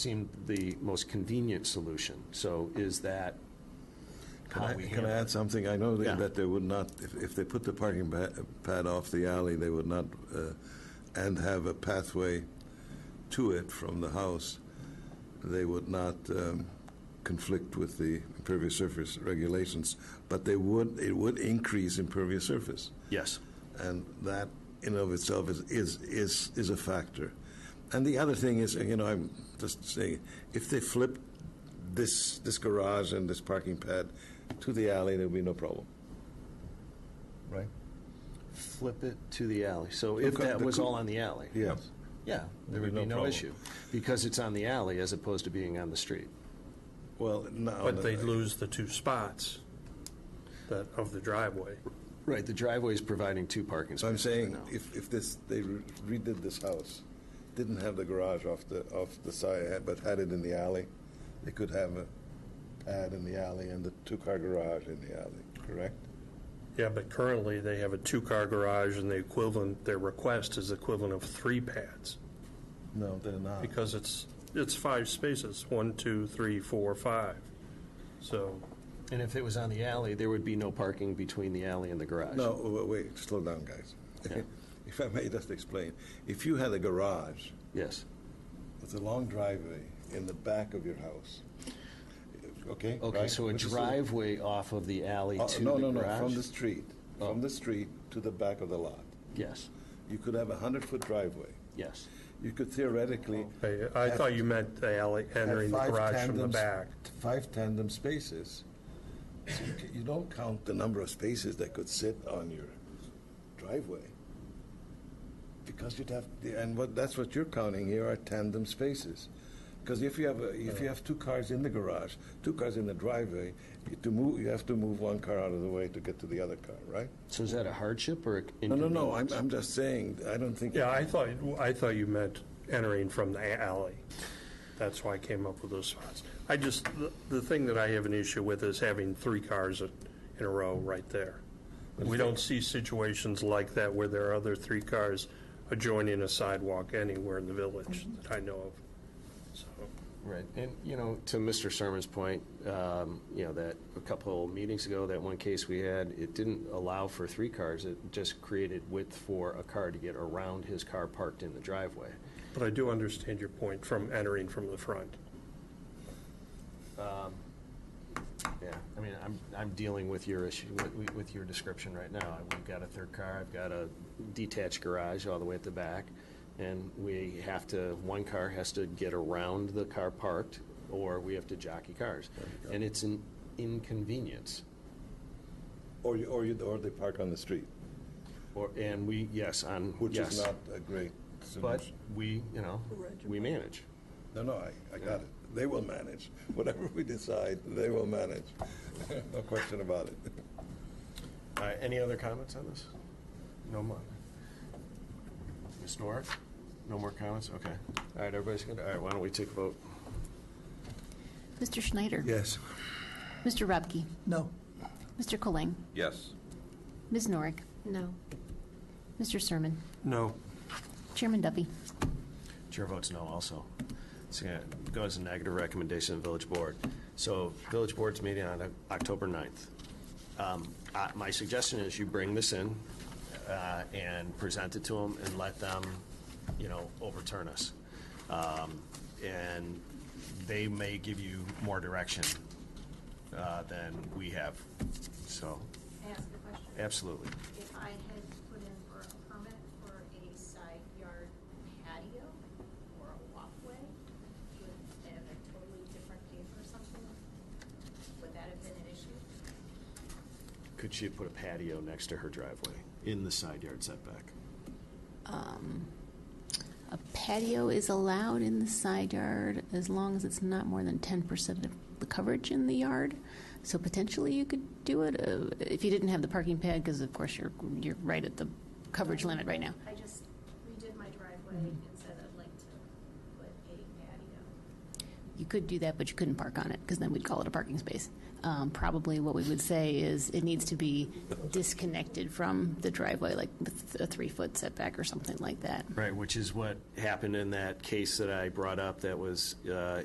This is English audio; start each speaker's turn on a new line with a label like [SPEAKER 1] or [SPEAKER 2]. [SPEAKER 1] seemed the most convenient solution. So is that
[SPEAKER 2] Can
[SPEAKER 1] how
[SPEAKER 2] I,
[SPEAKER 1] we
[SPEAKER 2] can
[SPEAKER 1] handle
[SPEAKER 2] I
[SPEAKER 1] it?
[SPEAKER 2] add something? I know
[SPEAKER 1] Yeah.
[SPEAKER 2] that that they would not, if, if they put the parking ba- pad off the alley, they would not, uh, and have a pathway to it from the house, they would not um, conflict with the impervious surface regulations, but they would, it would increase impervious surface.
[SPEAKER 1] Yes,
[SPEAKER 2] And that in and of itself is, is, is, is a factor. And the other thing is, you know, I'm just saying, if they flip this, this garage and this parking pad to the alley, there'd be no problem. Right?
[SPEAKER 1] flip it to the alley. So if
[SPEAKER 2] Okay,
[SPEAKER 1] that
[SPEAKER 2] the
[SPEAKER 1] was
[SPEAKER 2] coo-
[SPEAKER 1] all on the alley?
[SPEAKER 2] Yeah.
[SPEAKER 1] Yeah, there would
[SPEAKER 2] There'd be
[SPEAKER 1] be
[SPEAKER 2] no
[SPEAKER 1] no
[SPEAKER 2] problem.
[SPEAKER 1] issue, because it's on the alley as opposed to being on the street.
[SPEAKER 2] Well, no.
[SPEAKER 3] But they'd lose the two spots that, of the driveway.
[SPEAKER 1] Right, the driveway is providing two parking
[SPEAKER 2] So I'm
[SPEAKER 1] spaces right
[SPEAKER 2] saying,
[SPEAKER 1] now.
[SPEAKER 2] if, if this, they re- redid this house, didn't have the garage off the, off the side, but had it in the alley, they could have a pad in the alley and the two-car garage in the alley, correct?
[SPEAKER 3] Yeah, but currently, they have a two-car garage, and the equivalent, their request is equivalent of three pads,
[SPEAKER 2] No, they're not.
[SPEAKER 3] because it's, it's five spaces, one, two, three, four, five. So,
[SPEAKER 1] And if it was on the alley, there would be no parking between the alley and the garage.
[SPEAKER 2] No, wa- wait, slow down, guys. If I may just explain, if you had a garage
[SPEAKER 1] Yes,
[SPEAKER 2] with a long driveway in the back of your house, okay?
[SPEAKER 1] okay,
[SPEAKER 2] right?
[SPEAKER 1] so a
[SPEAKER 2] Which is-
[SPEAKER 1] driveway off of the alley
[SPEAKER 2] Oh,
[SPEAKER 1] to the
[SPEAKER 2] No,
[SPEAKER 1] garage? Oh.
[SPEAKER 2] no, no, from the street, from the street to the back of the lot.
[SPEAKER 1] Yes,
[SPEAKER 2] You could have a 100-foot driveway.
[SPEAKER 1] yes.
[SPEAKER 2] You could theoretically
[SPEAKER 3] I I thought you meant the alley, entering the garage from the back.
[SPEAKER 2] Five tandem spaces. So you ca- You don't count the number of spaces that could sit on your driveway. Because you'd have, and what, that's what you're counting here are tandem spaces. Because if you have, a- if you have two cars in the garage, two cars in the driveway, you to move, you have to move one car out of the way to get to the other car, right?
[SPEAKER 1] So is that a hardship or
[SPEAKER 2] No, no,
[SPEAKER 1] inconvenience?
[SPEAKER 2] no, I'm, I'm just saying, I don't think.
[SPEAKER 3] Yeah, I thought, I thought you meant entering from the alley. That's why I came up with those spots. I just, the- the thing that I have an issue with is having three cars in in a row right there. We don't see situations like that where there are other three cars adjoining a sidewalk anywhere in the village that I know of. So,
[SPEAKER 1] Right, and, you know, to Mr. Sermon's point, um, you know, that a couple meetings ago, that one case we had, it didn't allow for three cars, it just created width for a car to get around his car parked in the driveway.
[SPEAKER 3] But I do understand your point from entering from the front.
[SPEAKER 1] Yeah, I mean, I'm, I'm dealing with your issue, with, with your description right now. We've got a third car, I've got a detached garage all the way at the back, and we have to, one car has to get around the car parked, or we have to jockey cars. And it's an inconvenience.
[SPEAKER 2] Or you, or you, or they park on the street,
[SPEAKER 1] Or, and we, yes, on,
[SPEAKER 2] which is
[SPEAKER 1] yes.
[SPEAKER 2] not a great solution.
[SPEAKER 1] But we, you know, we manage.
[SPEAKER 2] No, no, I, I got it. They will manage. Whatever we decide, they will manage. No question about it.
[SPEAKER 1] All right, Uh, any other comments on this? No more. Ms. Norick? No more comments? Okay. All right, everybody's good? All right, why don't we take a vote?
[SPEAKER 4] Mr. Schneider?
[SPEAKER 2] Yes.
[SPEAKER 4] Mr. Rubke?
[SPEAKER 5] No.
[SPEAKER 4] Mr. Colang?
[SPEAKER 2] Yes.
[SPEAKER 4] Ms. Norick?
[SPEAKER 6] No.
[SPEAKER 4] Mr. Sermon?
[SPEAKER 3] No.
[SPEAKER 4] Chairman Duffy?
[SPEAKER 1] Chair votes no also. So it goes a negative recommendation to the village board. So village board's meeting on October 9th. Um, uh, My suggestion is you bring this in uh, and present it to them and let them, you know, overturn us. Um, And they may give you more direction uh, than we have, so,
[SPEAKER 7] ask a question?
[SPEAKER 1] absolutely.
[SPEAKER 7] If I had put in for a permit for a side yard patio or a walkway, would that have a totally different case or something? Would that have been an issue?
[SPEAKER 1] Could she put a patio next to her driveway in the side yard setback?
[SPEAKER 4] Um, A patio is allowed in the side yard as long as it's not more than 10% of the coverage in the yard. So potentially you could do it uh, if you didn't have the parking pad, because of course you're, you're right at the coverage limit right now.
[SPEAKER 7] I just redid my driveway and said I'd like to put a patio.
[SPEAKER 4] You could do that, but you couldn't park on it, because then we'd call it a parking space. Um, Probably what we would say is it needs to be disconnected from the driveway, like with a three-foot setback or something like that.
[SPEAKER 1] Right, which is what happened in that case that I brought up that was uh,